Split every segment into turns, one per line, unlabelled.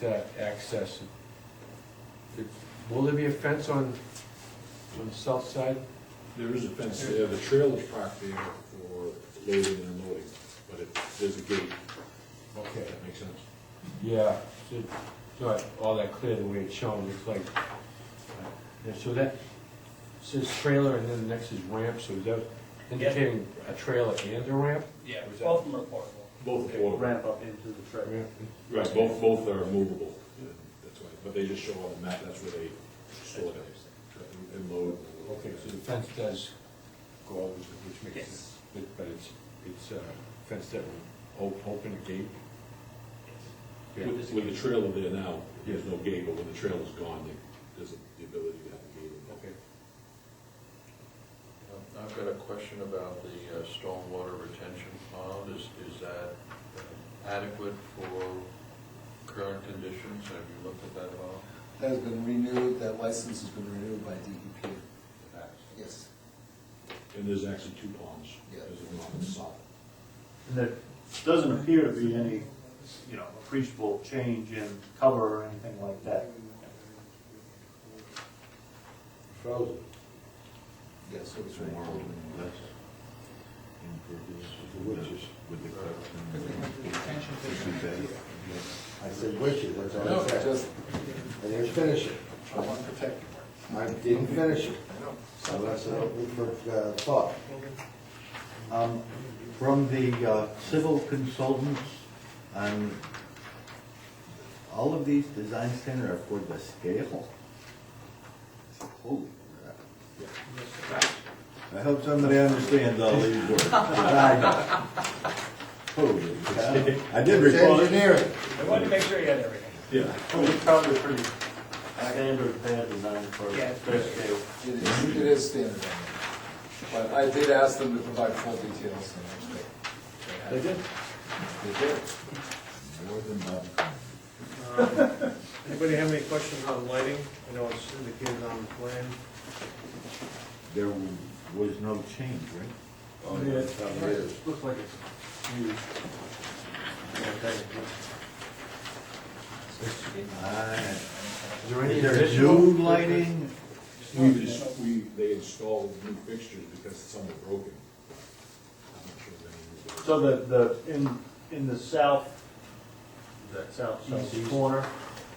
that access. It- Will there be a fence on, on the south side?
There is a fence there, the trailer's parked there for loading and unloading, but it, there's a gate,
Okay.
if that makes sense.
Yeah, it's not all that clear the way it's shown, it's like, uh, yeah, so that says trailer and then the next is ramp, so is that indicating a trailer and a ramp?
Yeah,
Was that-
both of them are portable.
Both are movable,
ramp up into the trailer.
Ramp.
right, both, both are movable, and that's why, but they just show on the map, that's where they store them, and load. and unload.
Okay, so the fence does go over, which makes sense, But- but it's, it's a fence that will op- open a gate? Yeah.
With, with the trailer there now, there's
Yeah.
no gate, but when the trailer's gone, they- there's the ability to have a gate. in there.
Okay.
Um, I've got a question about the uh, stormwater retention pond. Is, is that adequate for current conditions? Have you looked at that at all?
That has been renewed, that license has been renewed by DEP. Yes.
And there's actually two ponds,
Yeah.
there's a pond and south.
And there doesn't appear to be any, you know, appreciable change in cover or anything like that.
Frozen.
Yes, it was renewed.
I said wishes, that's all
No,
I said.
just,
I didn't finish it.
I want to protect
I didn't finish it.
I know.
So that's an open uh, thought. Um, From the uh, civil consultants, um, all of these design standards are for the scale. Holy crap. I hope somebody understands all these words. 'cause I don't. Holy cow. I did
It's
respond.
engineering.
I wanted to make sure you had everything.
Yeah.
It's probably pretty standard pad design for
Yeah.
their scale.
It is, it is standard. But I did ask them to provide full details, and they-
They did.
they did.
More than enough.
Anybody have any questions on lighting? I know it's indicated on the plan.
There was no change, right?
Oh, yeah, it probably is. Looks like it's huge.
Aye.
Is there any
Is there
additional?
new lighting?
We, just- we, they installed new fixtures because some were broken. I'm not sure if any
So the, the, in, in the south, that south, southeast corner,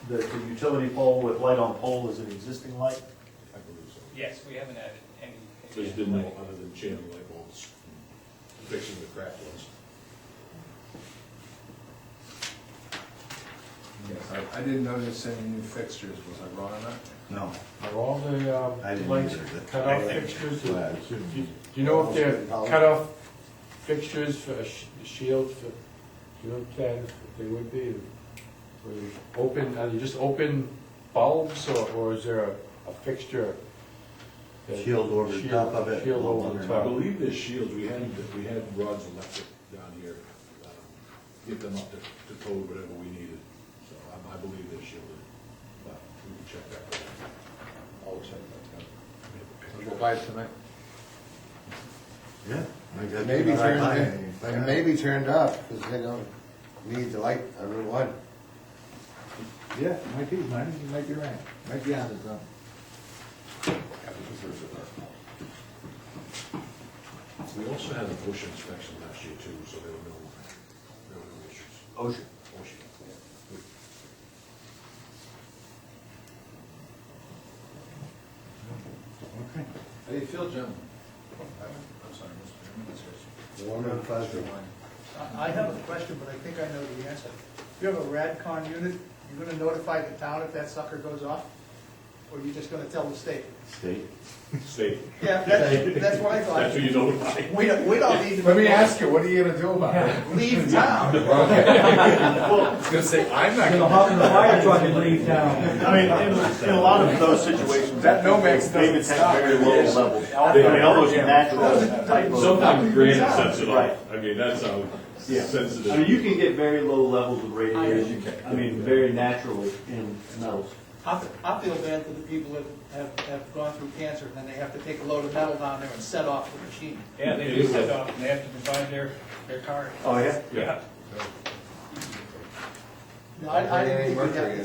the, the utility pole with light on pole is an existing light?
I believe so.
Yes, we haven't added any.
They just didn't know other than channel light bulbs, fixing the cracked ones.
Yes, I, I didn't notice any new fixtures, was I wrong on that?
No.
Are all the
I
um,
didn't
lights
either, but-
cut off fixtures?
Well, I
Do
assume-
you- do you know if they're cut off fixtures for a sh- shield for, do you know what that, if they would be? Were they Open, are they just open bulbs or, or is there a a fixture? that-
Shield over the top of it.
Shield over the
I
top.
believe there's shields, we had, we had Rod's electric down here, um, get them up to, to code whatever we needed. So um, I, I believe they're shielded, but we can check that.
I'll check that
I have a
out.
picture.
We'll buy it tonight.
Yeah. I guess
Maybe
that's what I
turned,
find.
and maybe turned off, because they don't need the light on Route One.
Yeah, might be, might, you might be right.
Might be on to something.
We also had a bush inspection last year too, so there were no, there were no issues.
Ocean.
Ocean.
Okay.
How do you feel, gentlemen? I'm sorry, Mr. Chairman, that's your-
Warm and fuzzy.
I have a question, but I think I know the answer. You have a RadCon unit, you're gonna notify the town if that sucker goes off? Or you're just gonna tell the state?
State.
State,
Yeah, that's, that's what I
that's who
thought.
you notify.
We don't, we don't need to.
Let me ask you, what are you gonna do about it?
Leave town.
It's gonna say, I'm not gonna.
hop in the fire truck and leave town. I mean, in, in a lot of those situations.
That no makes no
David's
stop.
at very low levels. I mean, all those natural type of,
Sometimes Grant sets it
Right.
off, I mean, that's how
Yeah.
sensitive.
I mean, you can get very low levels of radiation,
can.
I mean, very naturally in metals.
I, I feel bad for the people that have, have gone through cancer and then they have to take a load of metal down there and set off the machine.
Yeah, they do set off, and they have to provide their, their card.
Oh, yeah?
Yeah.
No, I, I didn't think we
Mercury
had